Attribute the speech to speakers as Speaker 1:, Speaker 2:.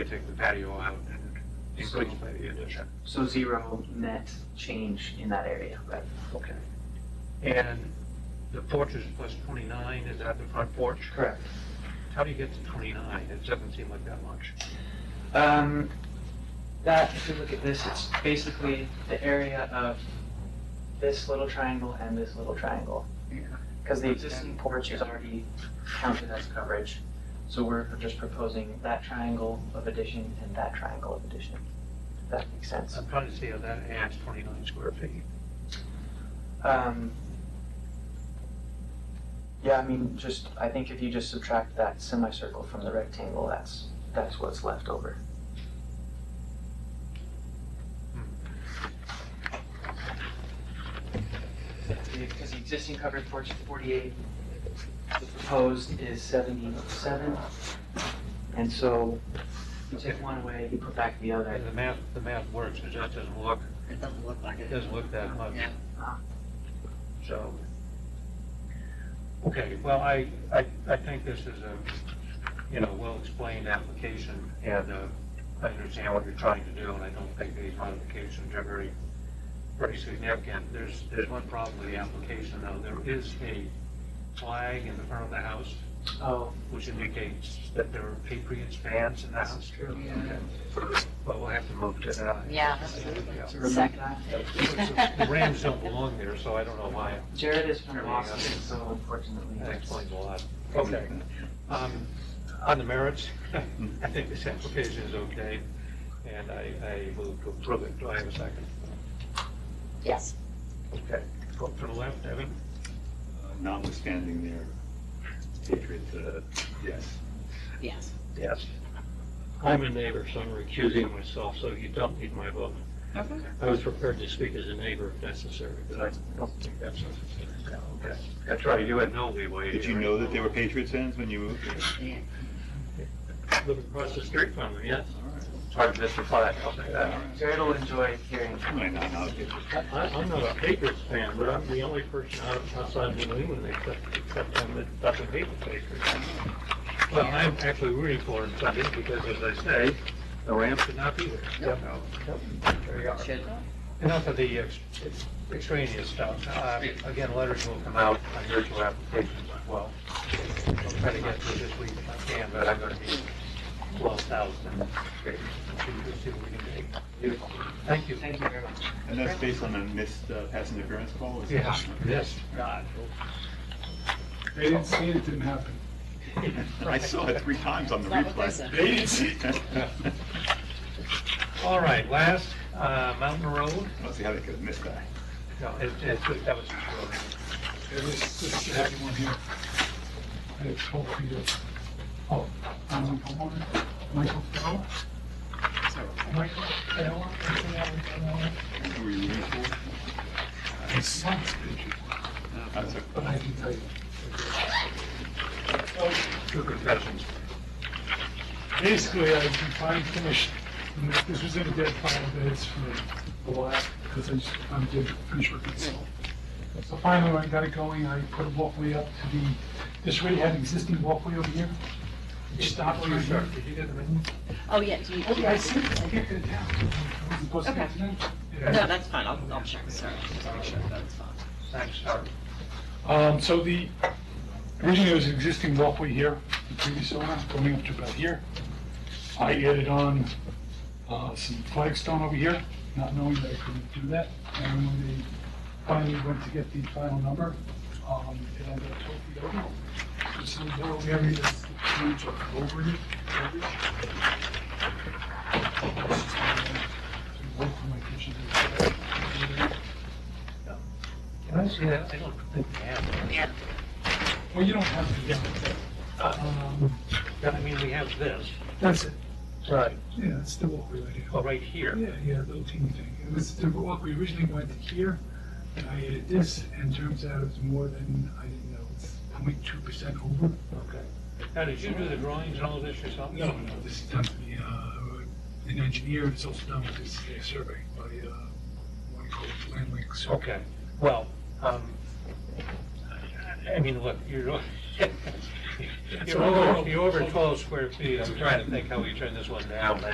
Speaker 1: We take the patio out and increase by the addition.
Speaker 2: So zero net change in that area, right?
Speaker 1: Okay. And the porch is plus twenty-nine, is that the front porch?
Speaker 2: Correct.
Speaker 1: How do you get to twenty-nine? It doesn't seem like that much.
Speaker 2: Um, that, if you look at this, it's basically the area of this little triangle and this little triangle.
Speaker 1: Yeah.
Speaker 2: Because the existing porch is already counted as coverage, so we're just proposing that triangle of addition and that triangle of addition. If That makes sense.
Speaker 1: I'm trying to see how that adds twenty-nine square feet.
Speaker 2: Um, yeah, I mean, just, I think if you just subtract that semicircle from the rectangle, that's, that's what's left over. Because the existing covered porch is forty-eight, the proposed is seventy-seven. And so you take one away, you put back the other.
Speaker 1: And the math, the math works, it just doesn't look,
Speaker 3: It doesn't look like
Speaker 1: it
Speaker 3: it.
Speaker 1: doesn't look that much.
Speaker 3: Yeah.
Speaker 2: Uh-huh.
Speaker 1: So, okay, well, I, I, I think this is a, you know, well-explained application, and, uh, I understand what you're trying to do, and I don't think these modifications are very, very significant. There's, there's one problem with the application, though, there is a flag in the front of the house,
Speaker 2: Oh,
Speaker 1: which indicates that there are Patriots fans in the house.
Speaker 2: true.
Speaker 1: Okay. But we'll have to move to that.
Speaker 4: Yeah.
Speaker 2: To remove that.
Speaker 1: The Rams don't belong there, so I don't know why
Speaker 2: Jared is from
Speaker 1: There we go.
Speaker 2: Boston, so unfortunately.
Speaker 1: That
Speaker 2: that's-
Speaker 1: explains a lot. Okay. Um, On the merits, I think this application is okay, and I, I move to approve it. Do I have a second?
Speaker 4: Yes.
Speaker 1: Okay. Vote for the left, Evan?
Speaker 5: Uh, notwithstanding their hatred, uh, yes.
Speaker 4: Yes.
Speaker 1: Yes. I'm a neighbor, so I'm recusing myself, so you don't need my vote.
Speaker 4: Okay.
Speaker 1: I was prepared to speak as a neighbor if necessary, but I don't think that's necessary. Okay. That's right, you had no leeway.
Speaker 5: Did you know that they were Patriots fans when you moved?
Speaker 1: Living across the street from them, yes.
Speaker 5: All right.
Speaker 1: Part of Mr. Platt, I'll say
Speaker 5: All
Speaker 1: that.
Speaker 5: right.
Speaker 2: Jared will enjoy hearing.
Speaker 5: I might not know if
Speaker 6: I, I- I'm not a Patriots fan, but I'm the only person out- outside New England except, except them that doesn't hate the Patriots.
Speaker 1: Well, I'm actually rooting for him Sunday because, as I say, the Rams should not be there. There you are. Enough of the ex- extraneous stuff. Uh, Again, letters will come out on your two applications as well. I'll try to get through this week if I can, but I'm going to be closed out. and we'll see what we can do. Beautiful. Thank you.
Speaker 2: Thank you very much.
Speaker 5: And that's based on a missed uh, pass interference call? is it?
Speaker 1: Yeah, yes.
Speaker 5: God.
Speaker 7: They didn't see it, it didn't happen.
Speaker 5: I saw it three times on the
Speaker 4: Not what they
Speaker 5: replay.
Speaker 4: said.
Speaker 5: They didn't see it.
Speaker 1: All right, last, uh, Mountain Road.
Speaker 5: I don't see how they could have missed that.
Speaker 1: No, it- it- that was.
Speaker 7: It was just a happy one here. I had told Peter, oh, I'm a homeowner, Michael Fowler. Michael Fowler.
Speaker 5: Who were you rooting for?
Speaker 7: His son's picture,
Speaker 5: That's a-
Speaker 7: but I can tell you.
Speaker 1: Two confessions.
Speaker 7: Basically, I defined finished, and this- this was in a dead final days for a while, because I just, I'm getting finished with myself. So finally, when I got it going, I put a walkway up to the, this already had an existing walkway over here. It stopped right here.
Speaker 1: Did you get the memo?
Speaker 4: Oh, yeah, do you?
Speaker 7: Okay, I see, I get it down. I wasn't supposed to get it down.
Speaker 4: No, that's fine, I'll, I'll check, sorry, just make sure that's fine.
Speaker 1: Thanks, sir.
Speaker 7: Um, so the, originally there was an existing walkway here, the previous owner, going up to about here. I added on, uh, some flagstone over here, not knowing that I couldn't do that. And when they finally went to get the final number, um, it ended up twelve feet over. There's some little area that's huge over it, over it. Work for uh, my kitchen.
Speaker 1: Can I see that? I don't think we have it.
Speaker 7: Well, you don't have to, um,
Speaker 1: I mean, we have this.
Speaker 7: that's it. Oh,
Speaker 1: Right.
Speaker 7: Yeah, it's the walkway right here.
Speaker 1: Well, right here.
Speaker 7: Yeah, yeah, the little teeny thing. It was the walkway originally went to here, and I added this, and turns out it's more than, I didn't know, it's 0.2 percent over.
Speaker 1: Okay. Now, did you do the drawings and all of this yourself?
Speaker 7: No, no, this is done by the, uh, an engineer, it's also done with this uh, survey by, uh, one called Land Link Survey.
Speaker 1: Okay, well, um, I- I mean, look, you're, You're over- you're over 12 square feet, I'm trying to think how we turn this one down.